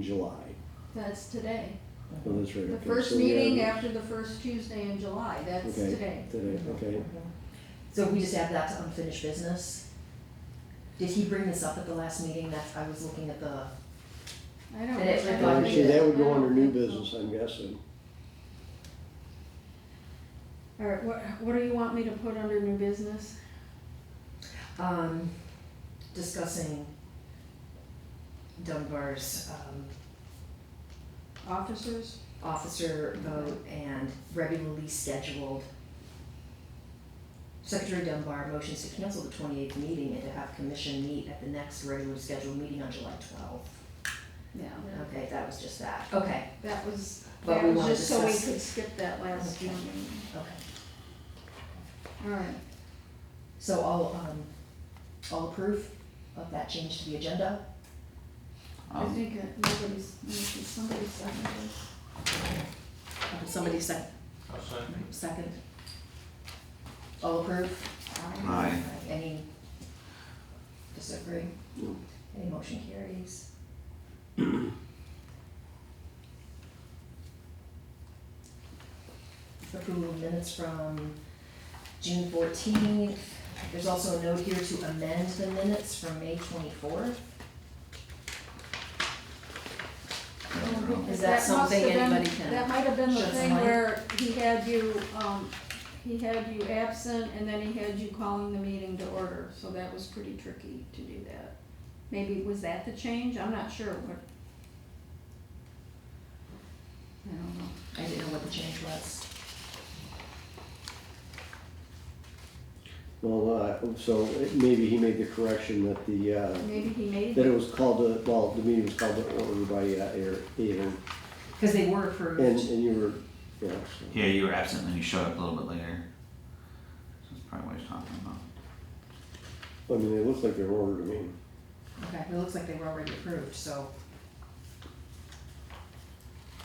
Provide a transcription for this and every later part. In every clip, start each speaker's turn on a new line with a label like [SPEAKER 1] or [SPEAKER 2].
[SPEAKER 1] July.
[SPEAKER 2] That's today.
[SPEAKER 1] Oh, that's right.
[SPEAKER 2] The
[SPEAKER 1] okay,
[SPEAKER 2] first
[SPEAKER 1] so we are-
[SPEAKER 2] meeting after the first Tuesday in July, that's
[SPEAKER 1] Okay,
[SPEAKER 2] today.
[SPEAKER 1] Today, okay.
[SPEAKER 3] So we just add that to unfinished business. Did he bring this up at the last meeting? That's, I was looking at the,
[SPEAKER 2] I don't.
[SPEAKER 3] And it's
[SPEAKER 2] I don't
[SPEAKER 3] like-
[SPEAKER 2] think
[SPEAKER 1] Actually, that would
[SPEAKER 2] I
[SPEAKER 1] go
[SPEAKER 2] don't
[SPEAKER 1] under new
[SPEAKER 2] think so.
[SPEAKER 1] business, I'm guessing.
[SPEAKER 2] All right, what, what do you want me to put under new business?
[SPEAKER 3] um, discussing Dunbar's, um,
[SPEAKER 2] Officers?
[SPEAKER 3] officer vote and regularly scheduled. Secretary Dunbar motions to cancel the twenty-eighth meeting and to have commission meet at the next regularly scheduled meeting on July twelfth.
[SPEAKER 2] Yeah,
[SPEAKER 3] Okay, that was just that. Okay,
[SPEAKER 2] that was,
[SPEAKER 3] But
[SPEAKER 2] that
[SPEAKER 3] we
[SPEAKER 2] was
[SPEAKER 3] wanna
[SPEAKER 2] just so we
[SPEAKER 3] discuss-
[SPEAKER 2] could skip that last
[SPEAKER 3] Okay.
[SPEAKER 2] one.
[SPEAKER 3] okay.
[SPEAKER 2] All right,
[SPEAKER 3] So all, um, all approve of that change to the agenda?
[SPEAKER 2] I
[SPEAKER 4] Um,
[SPEAKER 2] think that nobody's, somebody seconded it.
[SPEAKER 3] Uh, Somebody sec-
[SPEAKER 5] I'll second.
[SPEAKER 3] second? All approve?
[SPEAKER 4] Aye.
[SPEAKER 3] Any disagree?
[SPEAKER 1] No.
[SPEAKER 3] Any motion carries? Approval of minutes from June fourteenth. There's also a note here to amend the minutes from May twenty-fourth. Is
[SPEAKER 2] must
[SPEAKER 3] that
[SPEAKER 2] have
[SPEAKER 3] something
[SPEAKER 2] been-
[SPEAKER 3] anybody can
[SPEAKER 2] That might have been the
[SPEAKER 3] shed some
[SPEAKER 2] thing
[SPEAKER 3] light?
[SPEAKER 2] where he had you, um, he had you absent and then he had you calling the meeting to order, so that was pretty tricky to do that. Maybe, was that the change? I'm not sure, but. I don't know.
[SPEAKER 3] I didn't know what the change was.
[SPEAKER 1] Well, uh, so it- maybe he made the correction that the, uh,
[SPEAKER 2] Maybe he made
[SPEAKER 1] that it
[SPEAKER 2] it.
[SPEAKER 1] was called, to- well, the meeting was called to order by uh, Aaron- Aaron,
[SPEAKER 3] Because they were
[SPEAKER 1] and,
[SPEAKER 3] approved.
[SPEAKER 1] and you were, yeah. so-
[SPEAKER 4] Yeah, you were absent and then you showed up a little bit later. So that's probably what he's talking about.
[SPEAKER 1] I mean, it looks like they're ordered, I mean,
[SPEAKER 3] Okay, it looks like they were already approved, so.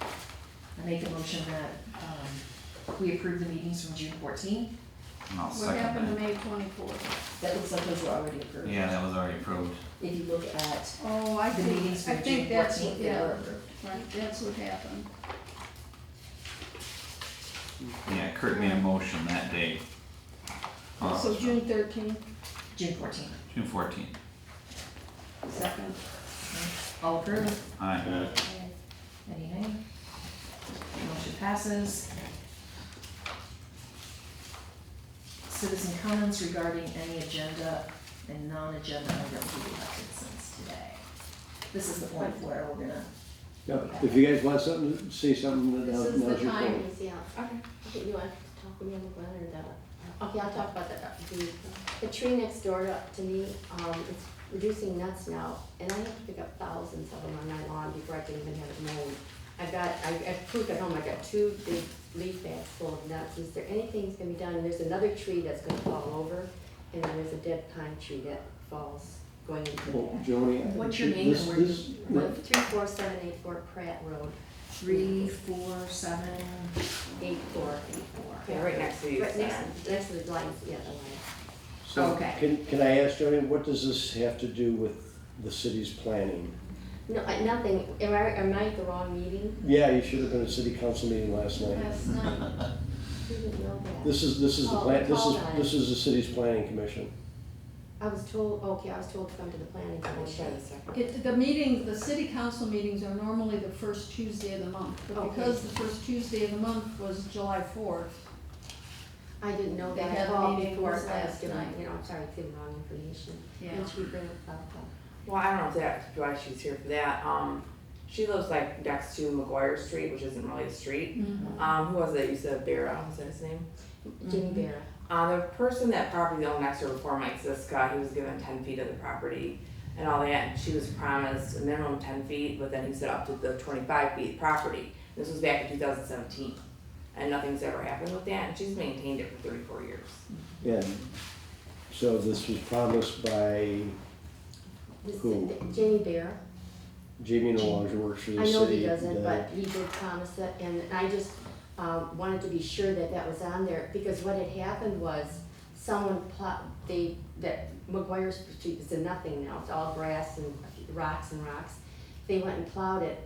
[SPEAKER 3] I make a motion that, um, we approve the meetings from June fourteenth.
[SPEAKER 4] And I'll
[SPEAKER 2] What happened
[SPEAKER 4] second
[SPEAKER 2] to May twenty-fourth?
[SPEAKER 3] That looks like those were already approved.
[SPEAKER 4] that. Yeah, that was already approved.
[SPEAKER 3] If you look at
[SPEAKER 2] Oh, I
[SPEAKER 3] the
[SPEAKER 2] think,
[SPEAKER 3] meetings
[SPEAKER 2] I
[SPEAKER 3] from June
[SPEAKER 2] think that's, what-
[SPEAKER 3] fourteenth, uh, they were
[SPEAKER 2] yeah,
[SPEAKER 3] approved.
[SPEAKER 2] right, that's what happened.
[SPEAKER 4] Yeah, Kurt made a motion that day. Oh,
[SPEAKER 2] So
[SPEAKER 4] that's
[SPEAKER 2] June thirteenth,
[SPEAKER 3] June fourteenth.
[SPEAKER 4] right. June fourteenth.
[SPEAKER 2] second.
[SPEAKER 3] All approved? Uh-huh.
[SPEAKER 4] Aye.
[SPEAKER 3] Any nay? Motion passes. Citizen comments regarding any agenda and non-agenda items we elected since today. This is the point where we're gonna,
[SPEAKER 1] yeah, if you guys want something, say something, now-
[SPEAKER 6] This is the
[SPEAKER 1] now's your
[SPEAKER 6] time,
[SPEAKER 1] call.
[SPEAKER 6] yeah. Okay. Okay, you want to talk with me on the letter or that? Okay, I'll talk about that. The, the tree next door to, to me, um, it's reducing nuts now, and I have to pick up thousands of them on my lawn before I can even have it mowed. I've got, I, I've proved at home, I've got two big leaf bags full of nuts. Is there anything that's gonna be done? And there's another tree that's gonna fall over, and then there's a dead pine tree that falls going into the
[SPEAKER 1] Well,
[SPEAKER 6] back.
[SPEAKER 1] Oh, Joni.
[SPEAKER 3] What's your name and
[SPEAKER 1] this-
[SPEAKER 3] where you-
[SPEAKER 1] this-
[SPEAKER 6] One, three, four, seven, eight, four Pratt Road,
[SPEAKER 3] three, four, seven,
[SPEAKER 6] eight, four, eight, four.
[SPEAKER 7] Yeah, right next to you.
[SPEAKER 6] Right next, next to the blinds, yeah, the lines.
[SPEAKER 1] So,
[SPEAKER 3] Okay.
[SPEAKER 1] can, can I ask Joni, what does this have to do with the city's planning?
[SPEAKER 6] No, I- nothing, am I, am I at the wrong meeting?
[SPEAKER 1] Yeah, you should have been at city council meeting last night.
[SPEAKER 2] Last night.
[SPEAKER 6] Didn't know that.
[SPEAKER 1] This is, this is the
[SPEAKER 6] Oh,
[SPEAKER 1] plan, this is,
[SPEAKER 6] hold on.
[SPEAKER 1] this is the city's planning commission.
[SPEAKER 6] I was told, okay, I was told to come to the planning commission.
[SPEAKER 2] It, the meeting, the city council meetings are normally the first Tuesday of the month, but
[SPEAKER 6] Okay.
[SPEAKER 2] because the first Tuesday of the month was July fourth,
[SPEAKER 6] I didn't know
[SPEAKER 2] They
[SPEAKER 6] that, I
[SPEAKER 2] had a
[SPEAKER 6] called
[SPEAKER 2] meeting
[SPEAKER 6] before,
[SPEAKER 2] this
[SPEAKER 6] so I was
[SPEAKER 2] last
[SPEAKER 6] giving,
[SPEAKER 2] night.
[SPEAKER 6] you know, I'm sorry, it's giving wrong information.
[SPEAKER 2] Yeah.
[SPEAKER 6] Did you bring up about that?
[SPEAKER 7] Well, I don't know if that, why she's here for that, um, she lives like next to McGuire Street, which isn't really a street. Um, who was it, you said Vera, was that his name?
[SPEAKER 2] Mm-hmm.
[SPEAKER 6] Jimmy Bear,
[SPEAKER 7] Uh, the person that property owned next to her before Mike Siska, he was given ten feet of the property and all that, and she was promised a minimum ten feet, but then he said up to the twenty-five feet property. This was back in two thousand seventeen, and nothing's ever happened with that, and she's maintained it for thirty-four years.
[SPEAKER 1] And so this was promised by
[SPEAKER 6] this,
[SPEAKER 1] Who?
[SPEAKER 6] Jimmy Bear,
[SPEAKER 1] Jamie Nalonge, who works for
[SPEAKER 6] I
[SPEAKER 1] the city.
[SPEAKER 6] know he doesn't,
[SPEAKER 1] that-
[SPEAKER 6] but he did promise it, and I just, um, wanted to be sure that that was on there, because what had happened was, someone plowed, they, that McGuire's Street is a nothing now, it's all grass and rocks and rocks. They went and plowed it,